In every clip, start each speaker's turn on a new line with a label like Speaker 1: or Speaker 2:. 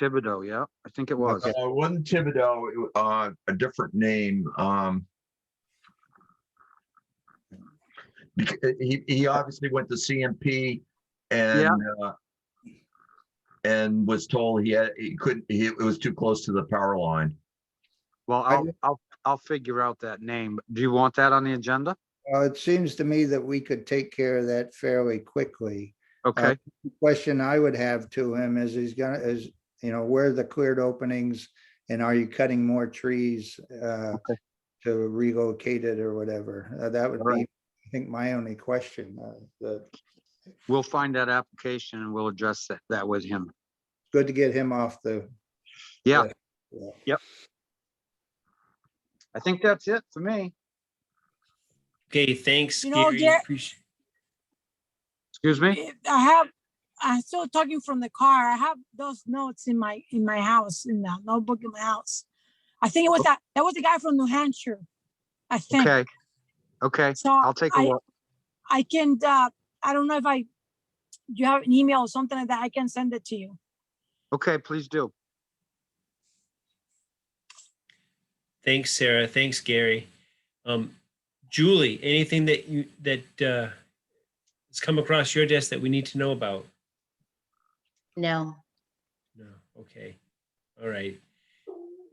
Speaker 1: Thibodeau, yeah, I think it was.
Speaker 2: Uh, it wasn't Thibodeau, it wa- uh, a different name, um. becau- he, he obviously went to CMP and, uh, and was told he had, he couldn't, he, it was too close to the power line.
Speaker 1: Well,
Speaker 3: I-
Speaker 1: I'll, I'll, I'll figure out that name. Do you want that on the agenda?
Speaker 3: Well, it seems to me that we could take care of that fairly quickly.
Speaker 1: Okay,
Speaker 3: Question I would have to him is he's gonna, is, you know, where are the cleared openings? And are you cutting more trees uh,
Speaker 1: Okay.
Speaker 3: to relocate it or whatever? Uh, That would
Speaker 1: All
Speaker 3: be,
Speaker 1: right.
Speaker 3: I think, my only question. uh, the-
Speaker 1: we'll find that application and we'll address that, that with him.
Speaker 3: Good to get him off the,
Speaker 1: Yeah.
Speaker 3: Yeah.
Speaker 1: Yep. I think that's it for me.
Speaker 4: Okay, thanks,
Speaker 5: You know,
Speaker 4: Gary.
Speaker 5: Gar-
Speaker 4: Appreciate.
Speaker 1: Excuse me?
Speaker 5: I have, I'm still talking from the car. I have those notes in my, in my house, in the notebook in my house. I think it was that, that was the guy from New Hampshire, I think.
Speaker 1: Oh. Okay. Okay,
Speaker 5: So
Speaker 1: I'll take a
Speaker 5: I-
Speaker 1: look.
Speaker 5: I can, uh, I don't know if I, you have an email or something like that, I can send it to you.
Speaker 1: Okay, please do.
Speaker 4: Thanks, Sarah. Thanks, Gary. Um, Julie, anything that you that uh, has come across your desk that we need to know about?
Speaker 6: No,
Speaker 4: No. Okay. All right.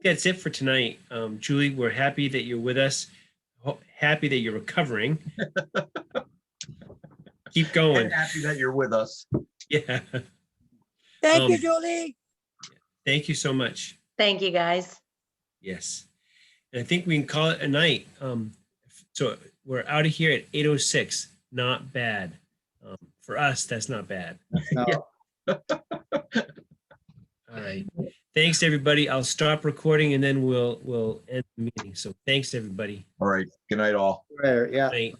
Speaker 4: That's it for tonight. Um, Julie, we're happy that you're with us. Ho- Happy that you're recovering. Keep
Speaker 2: And
Speaker 4: going.
Speaker 2: happy that you're with us.
Speaker 4: Yeah.
Speaker 5: Thank you,
Speaker 4: Um,
Speaker 5: Julie.
Speaker 4: Thank you so much.
Speaker 6: thank you, guys.
Speaker 4: Yes. And I think we can call it a night. Um, so we're out of here at eight oh six. Not bad. Um, for us, that's not bad.
Speaker 3: no,
Speaker 4: All right. Thanks, everybody. I'll stop recording and then we'll, we'll end the meeting. So thanks, everybody.
Speaker 2: All right, good night all.
Speaker 3: where- yeah.
Speaker 4: Night.